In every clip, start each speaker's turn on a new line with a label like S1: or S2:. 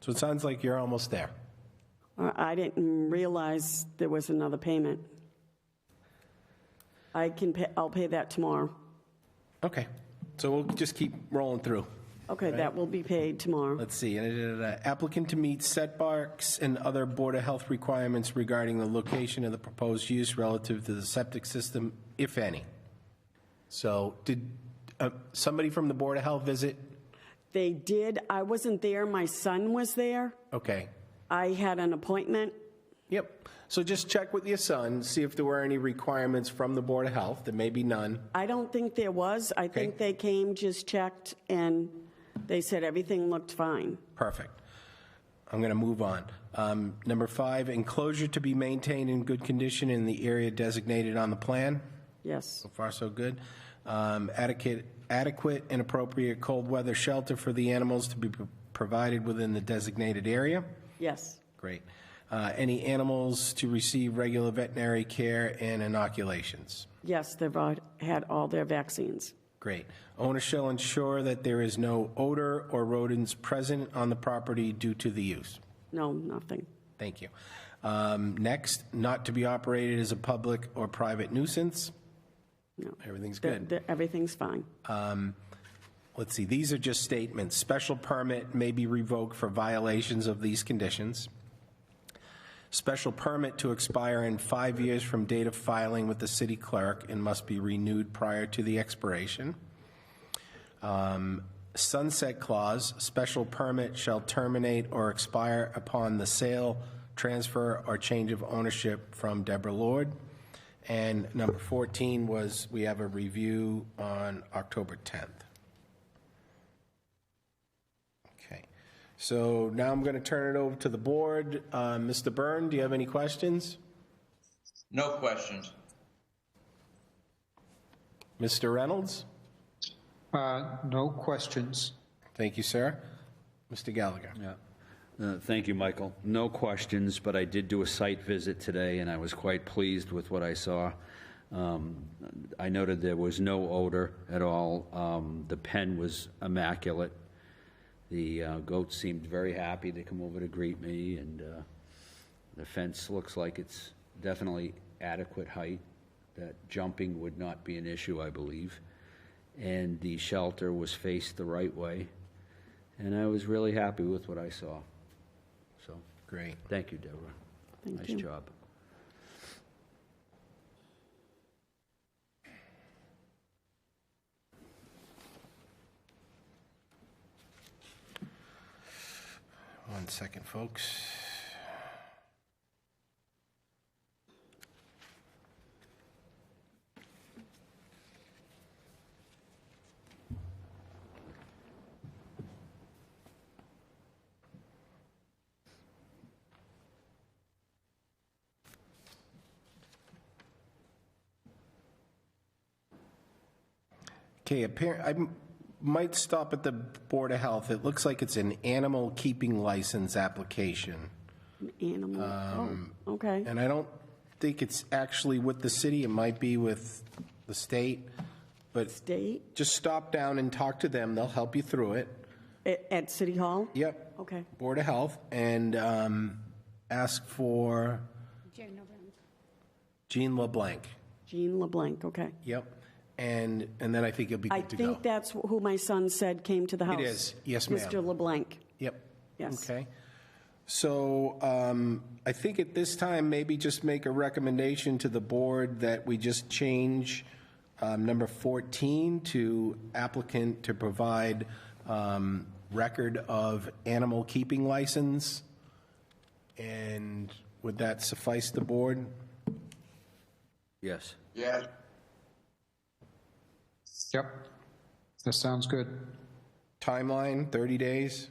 S1: So it sounds like you're almost there.
S2: Uh, I didn't realize there was another payment. I can, pay. I'll pay that tomorrow.
S1: Okay, so we'll just keep rolling through.
S2: Okay, that will be paid tomorrow.
S1: Let's see, and, uh, applicant to meet setbacks and other Board of Health requirements regarding the location of the proposed use relative to the septic system, if any. So did uh, somebody from the Board of Health visit?
S2: They did, I wasn't there, my son was there.
S1: Okay,
S2: I had an appointment.
S1: yep. So just check with your son, see if there were any requirements from the Board of Health. There may be none.
S2: I don't think there was. I think they came, just checked, and they said everything looked fine.
S1: Perfect. I'm going to move on. Um, Number five, enclosure to be maintained in good condition in the area designated on the plan.
S2: Yes,
S1: So far, so good. Um, Adequate, adequate and appropriate cold weather shelter for the animals to be pro- provided within the designated area.
S2: yes,
S1: Great. Uh, Any animals to receive regular veterinary care and inoculations.
S2: yes, they've all had all their vaccines.
S1: Great. Owner shall ensure that there is no odor or rodents present on the property due to the use.
S2: No, nothing.
S1: Thank you. Um, Next, not to be operated as a public or private nuisance.
S2: No.
S1: Everything's
S2: The-
S1: good.
S2: the- Everything's fine.
S1: Let's see, these are just statements. Special permit may be revoked for violations of these conditions. Special permit to expire in five years from date of filing with the city clerk and must be renewed prior to the expiration. Um, Sunset clause, special permit shall terminate or expire upon the sale, transfer, or change of ownership from Deborah Lord. And number 14 was, we have a review on October 10th. Okay, so now I'm going to turn it over to the board. Uh, Mr. Byrne, do you have any questions?
S3: No questions.
S1: Mr. Reynolds?
S4: Uh, No questions.
S1: Thank you, sir. Mr. Gallagher?
S5: Uh, Thank you, Michael. No questions, but I did do a site visit today, and I was quite pleased with what I saw. Um, I noted there was no odor at all. Um, The pen was immaculate. The uh, goat seemed very happy to come over to greet me, and uh, the fence looks like it's definitely adequate height, that jumping would not be an issue, I believe. And the shelter was faced the right way, and I was really happy with what I saw. So,
S1: Great.
S5: thank you, Deborah.
S2: Thank you.
S5: Nice job.
S1: One second, folks. Okay, appear, I m- might stop at the Board of Health. It looks like it's an animal keeping license application.
S2: Animal, oh, okay.
S1: Um, And I don't think it's actually with the city, it might be with the state, but
S2: State,
S1: just stop down and talk to them, they'll help you through it.
S2: at, at City Hall?
S1: Yep.
S2: Okay.
S1: Board of Health, and um, ask for Jean LeBlanc.
S2: Jean LeBlanc, okay.
S1: Yep, and, and then I think you'll be
S2: I
S1: good to go.
S2: think that's who my son said came to the house.
S1: is. Yes, ma'am.
S2: Mr. LeBlanc.
S1: Yep.
S2: Yes.
S1: Okay. So um, I think at this time, maybe just make a recommendation to the board that we just change um, number 14 to applicant to provide um, record of animal keeping license. And would that suffice the board?
S5: Yes.
S3: Yes.
S4: Yep, that sounds good.
S1: Timeline, 30 days?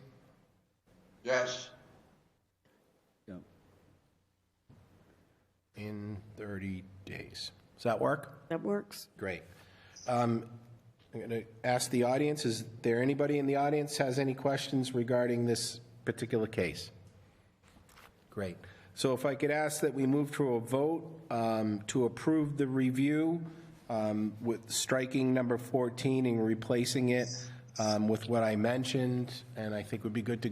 S3: Yes.
S5: Yeah.
S1: In 30 days. Does that work?
S2: That works.
S1: Great. Um, I'm going to ask the audience, is there anybody in the audience has any questions regarding this particular case? Great. So if I could ask that we move to a vote um, to approve the review um, with striking number 14 and replacing it um, with what I mentioned, and I think would be good to